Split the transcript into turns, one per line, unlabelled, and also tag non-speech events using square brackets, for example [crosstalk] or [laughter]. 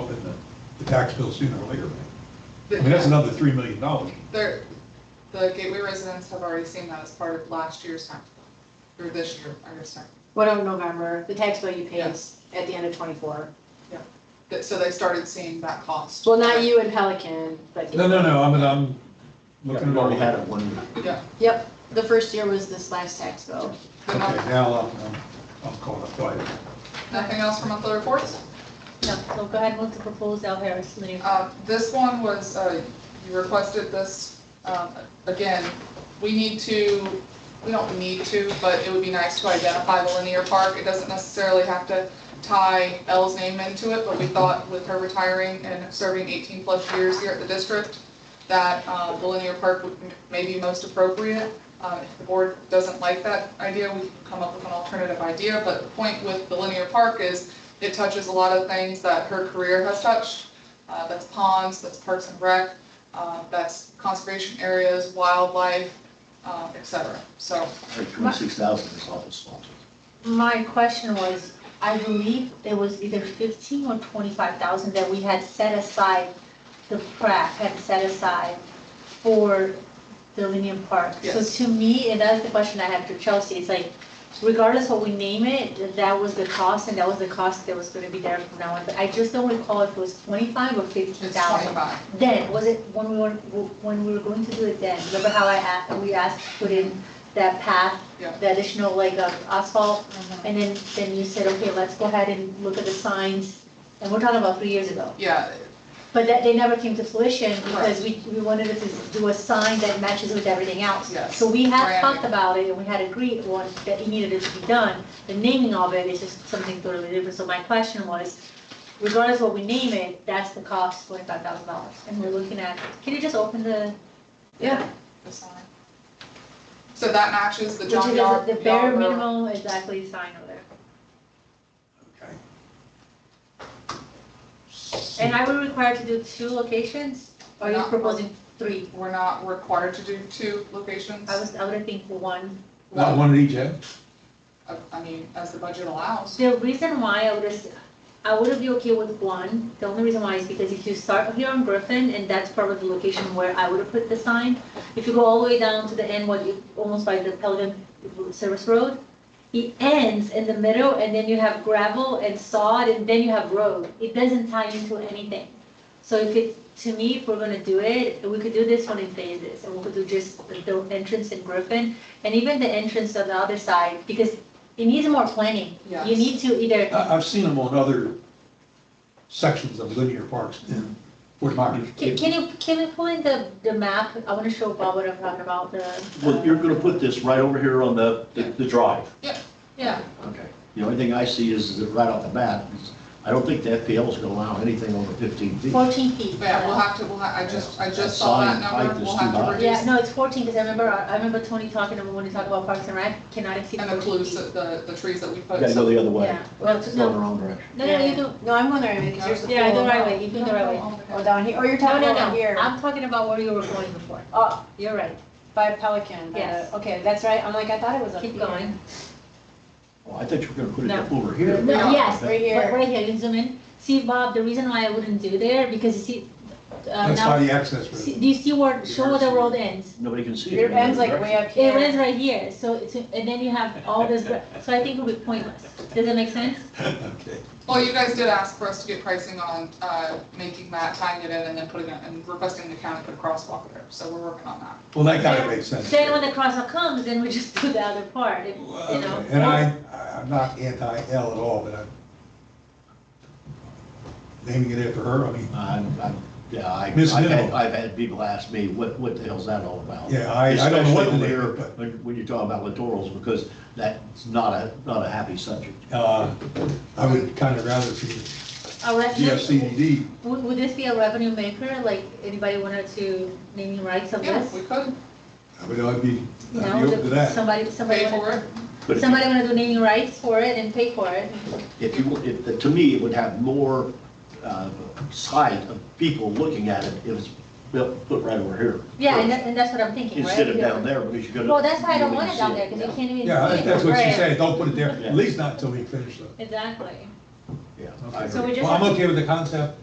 in the, the tax bill sooner or later. I mean, that's another three million dollars.
There, the Gateway residents have already seen that as part of last year's tax, bill, or this year, I guess, sorry.
whatever November, the tax bill you pay
Yes.
is at the end of twenty-four.
That- So they started seeing that cost.
Well, not you and Pelican, but.
No, no, no, I'm, I'm looking
We've
at
only
all.
had it one year.
Yeah,
Yep, the first year was this last tax bill.
but
Okay,
no-
now I'm, I'm- I'm calling up, go ahead.
nothing else for monthly reports?
No, so go ahead and move to propose Al Harris Committee.
Uh, This one was, uh, you requested this, um, again, we need to, we don't need to, but it would be nice to identify the linear park. It doesn't necessarily have to tie Elle's name into it, but we thought with her retiring and serving 18-plus years here at the district, that uh, the linear park would m- may be most appropriate. Uh, If the board doesn't like that idea, we can come up with an alternative idea, but the point with the linear park is it touches a lot of things that her career has touched, uh, that's ponds, that's parks and rec, uh, that's conservation areas, wildlife, uh, et cetera. So,
Twenty-six thousand is awful small.
My question was, I believe there was either fifteen or twenty-five thousand that we had set aside, the PrAC had set aside for the Linnean Park. So
Yes.
to me, and that's the question I had for Chelsea, it's like, regardless what we name it, that was the cost, and that was the cost that was gonna be there from now on. But I just don't recall if it was twenty-five or fifteen
it's
thousand.
25.
Then, was it when we were, when we were going to do it then, remember how I asked, we asked to put in that path?
Yeah.
The additional like of asphalt, and then, then you said, okay, let's go ahead and look at the signs, and we're talking about three years ago.
Yeah,
But that, they never came to fruition because we, we wanted to do a sign that matches with everything else.
Yes.
So we had
Branding.
talked about it, and we had agreed on that it needed to be done, the naming of it is just something totally different, so my question was, regardless what we name it, that's the cost, twenty-five thousand dollars, and we're looking at, can you just open the?
Yeah.
the sign. So that matches the
Which
John
is
Yar.
the bare
Yarborough.
minimum, exactly, sign over there.
Okay.
And are we required to do two locations, or are you
Not one.
proposing three?
We're not required to do two locations.
I was, I would think one.
Not one at each end?
I- I mean, as the budget allows.
The reason why I would, as- I would be okay with one, the only reason why is because if you start here on Griffin, and that's probably the location where I would have put the sign. If you go all the way down to the end, what you, almost by the Pelican Service Road, it ends in the middle, and then you have gravel and sod, and then you have road. It doesn't tie into anything. So if it, to me, if we're gonna do it, we could do this one in phases, and we could do just the- the entrance in Griffin, and even the entrance on the other side, because it needs more planning.
Yes.
You need to either,
Uh,
I, I've seen them on other sections of linear parks in Fort Myers.
can, can you, can we pull in the, the map? I wanna show Bob what I'm talking about, the.
Well, you're gonna put this right over here on the, the the drive.
Yeah,
Okay. The only thing I see is, is that right off the bat, is I don't think the FPL is gonna allow anything over fifteen feet.
fourteen feet.
Yeah, we'll have to, we'll, ha- I just, I
That
just saw that
sign height
number.
is
We'll
too
have
high.
to
Yeah,
reduce
no, it's fourteen, because I remember, I remember Tony talking, and when we talk about Parks and Rec, cannot exceed
and
fourteen
include
feet.
the, the trees that we
You
put.
gotta go the other way.
Yeah, well,
It's going the
no,
wrong direction.
No, no, you do, no, I'm on the right way, because there's the pool.
yeah, the right way, you do the right way.
Or Oh, down here, or you're
No,
talking
no,
about
no,
here,
I'm talking about where you were going before.
oh,
You're right,
by Pelican, by
Yes.
the- okay, that's right, I'm like, I thought it was up
keep
here.
going.
Oh, I thought you were gonna put it
No.
up over here.
No, yes,
Right
But
here,
right here, you can zoom in. See, Bob, the reason why I wouldn't do there, because you see, uh,
That's by
now,
the access
see-
road.
do you see where, show where the road ends?
Nobody can see it.
your end's like way up
It
here.
ends right here, so, it's- and then you have all this, so I think it would be pointless. Does that make sense?
Okay.
Well, you guys did ask for us to get pricing on, uh, making that, tying it in and then putting it, and requesting the county put a crosswalk there. So we're working on that.
Well, that kind of makes sense.
Then when the crosswalk comes, then we just [laughs] do the other part, if- you know?
Okay, And I, I'm not anti-L at all, but I'm naming it after her, I mean,
I'm, I'm, yeah, I, I've
Miss
had,
Minimal.
I've had people ask me, what, what the hell's that all about?
Yeah, I- I don't know what the
Especially over
name,
here,
but-
When, when you talk about littorals, because that's not a, not a happy subject.
uh, I would kind of rather see
A revenue-
GFCDD.
Would, would this be a revenue maker? Like, anybody wanted to naming rights of
Yeah,
this?
we could.
I would, I'd be,
You
I'd be
know,
open to that.
somebody, somebody
Pay for
wanna,
But if you-
somebody wanna do naming rights for it and pay for it.
if you, if, to me, it would have more, uh, sight of people looking at it if it's built, put right over here.
Yeah, and that, and that's what I'm thinking, right?
Instead of
Yeah.
down there, because you're gonna.
Well, that's why I don't
you're
want
gonna
it down
see
there, because you can't even see it.
Yeah, I think that's what she's
Right.
saying, don't put it there,
Yeah.
at least not until we finish the.
Exactly.
Yeah, yeah, I
Okay.
agree.
So we just
Well, I'm
have to-
okay with the concept,